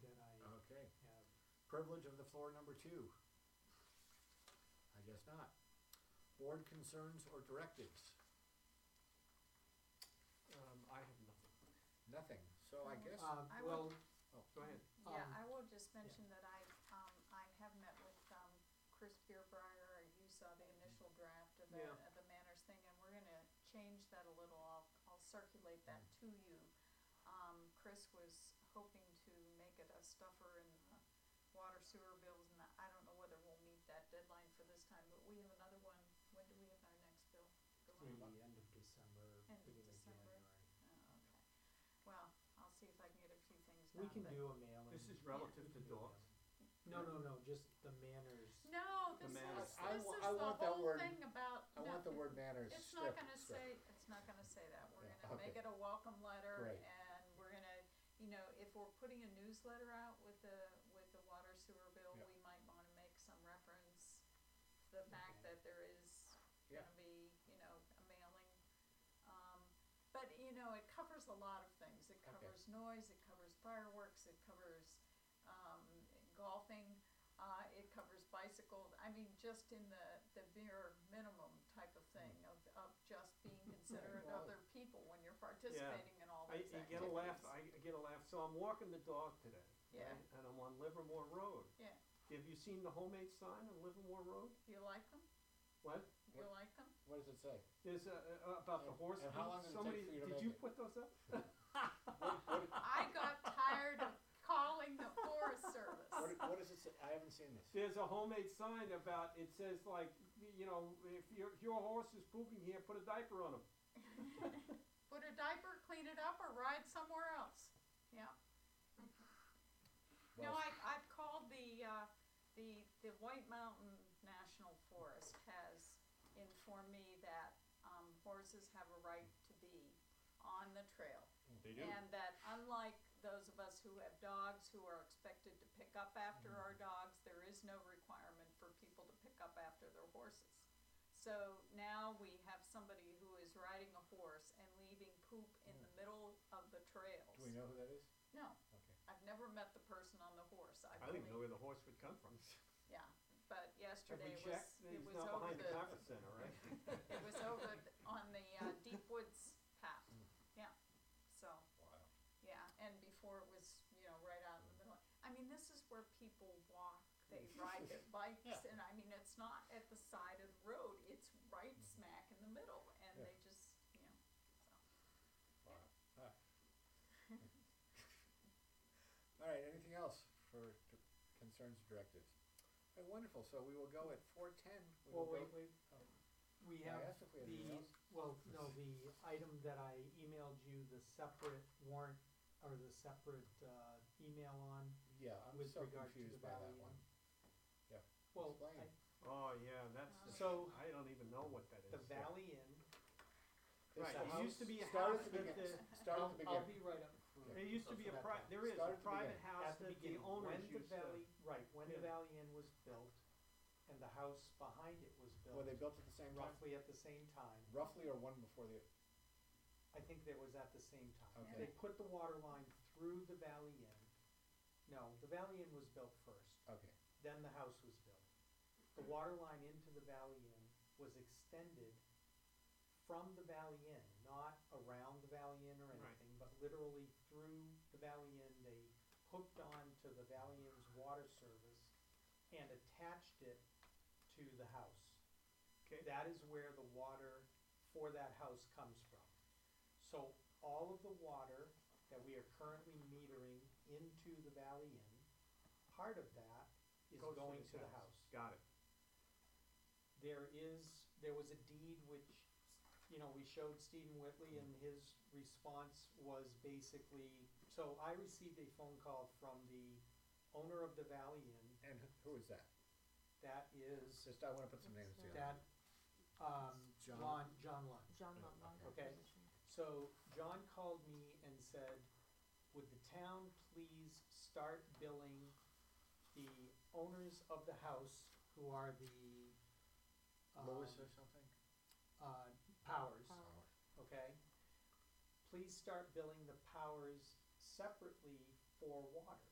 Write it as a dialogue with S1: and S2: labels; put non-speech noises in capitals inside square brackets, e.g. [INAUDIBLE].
S1: Uh-huh.
S2: Privilege of the floor number two? I guess not. Board concerns or directives?
S3: Um, I have nothing.
S2: Nothing, so I guess,
S3: Um,
S4: I
S3: well,
S4: would-
S2: oh,
S3: go ahead.
S4: Yeah,
S3: Um,
S4: I will just mention that I, um, I have met with, um, Chris Beerbrier, you saw the initial draft of the,
S3: Yeah.
S4: of the manners thing, and we're gonna change that a little, I'll, I'll circulate that to you. Um, Chris was hoping to make it a stuffer in the water sewer bills, and I don't know whether we'll meet that deadline for this time, but we have another one, when do we have our next bill? The one-
S1: Through the end of December,
S4: End of
S1: beginning of
S4: December.
S1: January.
S4: Oh, okay, well, I'll see if I can get a few things done,
S1: We can
S4: but-
S1: do a mailing.
S3: This is relative to dogs.
S1: No, no, no, just the manners.
S4: No,
S3: The
S4: this is,
S3: manners.
S4: this is
S2: I- I
S4: the
S2: wa- I want that
S4: whole
S2: word-
S4: thing about,
S2: I want the
S4: no,
S2: word manners
S4: it's not
S2: stripped,
S4: gonna
S2: so-
S4: say, it's not gonna say that, we're
S2: Yeah,
S4: gonna make
S2: okay.
S4: it a welcome letter,
S2: Great.
S4: and we're gonna, you know, if we're putting a newsletter out with the, with the water sewer bill,
S2: Yeah.
S4: we might wanna make some reference to the fact
S1: Okay.
S4: that there is
S2: Yeah.
S4: gonna be, you know, a mailing. Um, but, you know, it covers a lot of things, it
S2: Okay.
S4: covers noise, it covers fireworks, it covers, um, golfing, uh, it covers bicycles, I mean, just in the, the bare minimum type of
S3: Hmm.
S4: thing of, of just
S3: [LAUGHS]
S4: being considerate of
S2: Well-
S4: other people when you're participating in all
S3: I,
S4: these
S3: you
S4: activities.
S3: get a laugh, I, I get a laugh, so I'm walking the dog today.
S4: Yeah.
S3: right, And I'm on Livermore Road.
S4: Yeah.
S3: Have you seen the homemade sign on Livermore Road?
S4: You like them?
S3: What?
S4: You like them?
S2: What does it say?
S3: There's a, a- about the
S2: And-
S3: horse.
S2: and how
S3: feet.
S2: long did it take
S3: Somebody,
S2: for you to
S3: did
S2: make
S3: you
S2: it?
S3: put
S2: [LAUGHS]
S3: those up? [LAUGHS]
S4: I got tired of calling the
S3: [LAUGHS]
S4: Forest Service.
S2: What, what does it say? I haven't seen this.
S3: There's a homemade sign about, it says like, y- you know, if your, if your horse is pooping here, put a diaper on him.
S4: Put a diaper, clean it up, or ride somewhere else. Yeah. No,
S2: Well-
S4: I, I've called the, uh, the, the White Mountain National Forest has informed me that, um, horses have a right to be on the trail.
S3: They
S4: And that unlike those of us who have dogs who are expected to pick up after
S3: Mm-hmm.
S4: our dogs, there is no requirement for people to pick up after their horses. So now we have somebody who is riding a horse and leaving poop in
S3: Mm.
S4: the middle of the trails.
S2: Do we know who that is?
S4: No,
S2: Okay.
S4: I've never met the person on the horse. I've
S3: I don't even know
S4: only-
S3: where the horse would come from.
S4: Yeah,
S3: Have
S4: but
S3: we
S4: yesterday was,
S3: checked?
S4: it
S3: He's
S4: was
S3: not
S4: over
S3: behind the
S4: the,
S3: conference center, right?
S4: [LAUGHS] it was over th- on the, uh, Deep Woods path, yeah, so.
S2: Mm. Wow.
S4: Yeah, and before it was, you know, right out in the middle. I mean, this is where people walk,
S2: [LAUGHS]
S4: they ride their bikes,
S2: Yeah.
S4: and I mean, it's not at the side of the road, it's right smack in the middle, and
S2: Mm-hmm. Yeah.
S4: they just, you know, so.
S2: Wow. Ah. [LAUGHS]
S4: [LAUGHS]
S2: All right, anything else for d- concerns or directives? All right, wonderful, so we will go at four ten.
S1: Well, wait, wait.
S2: oh.
S1: We
S2: I
S1: have
S2: asked if we had anything
S1: the,
S2: else.
S1: well, no, the item that I emailed you, the separate warrant, or the separate, uh, email on.
S2: Yeah, I'm
S1: with
S2: so
S1: regard to
S2: confused
S1: the
S2: by that
S1: value.
S2: one.
S1: Well,
S2: Explain.
S1: I-
S3: Oh, yeah, that's,
S4: Uh,
S1: So-
S3: I don't even know what that is.
S1: the Valley Inn,
S2: There's
S3: Right,
S2: a
S3: it
S2: house-
S3: used to be a
S2: start at
S3: house
S2: the
S3: that
S2: begin-
S3: the-
S2: Start
S1: I'll,
S2: at the
S1: I'll
S2: beginning.
S1: be right up. Oh,
S2: Yeah.
S3: There used to be a pri- there is
S2: Start
S3: a
S2: at the
S3: private
S2: beginning.
S3: house
S1: At the
S3: that the
S1: beginning,
S3: owners
S1: when the
S3: used to.
S1: Valley, right, when the
S3: Yeah.
S1: Valley Inn was built, and the house behind it was
S2: Were they
S1: built,
S2: built at the same time?
S1: roughly at the same time,
S2: Roughly or one before the,
S1: I think that was at the same time.
S2: Okay.
S1: They put the water line through the Valley Inn, no, the Valley Inn was built first.
S2: okay,
S1: Then the house was built. The water line into the Valley Inn was extended from the Valley Inn, not around the Valley Inn or
S3: Right.
S1: anything, but literally through the Valley Inn. They hooked on to the Valley Inn's water service and attached it to the house.
S3: Okay.
S1: That is where the water for that house comes from. So all of the water that we are currently metering into the Valley Inn, part of that is
S3: Goes to
S1: going
S3: this
S1: to the
S3: house.
S1: house.
S3: Got it.
S1: There is, there was a deed which, you know, we showed Stephen Whitley and his response was basically, so I received a phone call from the owner of the Valley Inn,
S2: and who- who is that?
S1: that is,
S2: Just, I wanna put some names together.
S1: that, um,
S2: John.
S1: John, John Lund.
S5: John
S2: Yeah,
S5: Lumley.
S1: okay. Okay. So John called me and said, would the town please start billing the owners of the house who are the. um,
S2: Lois or something?
S1: Uh, powers,
S5: Powers.
S2: Howard.
S1: okay? Please start billing the powers separately for water.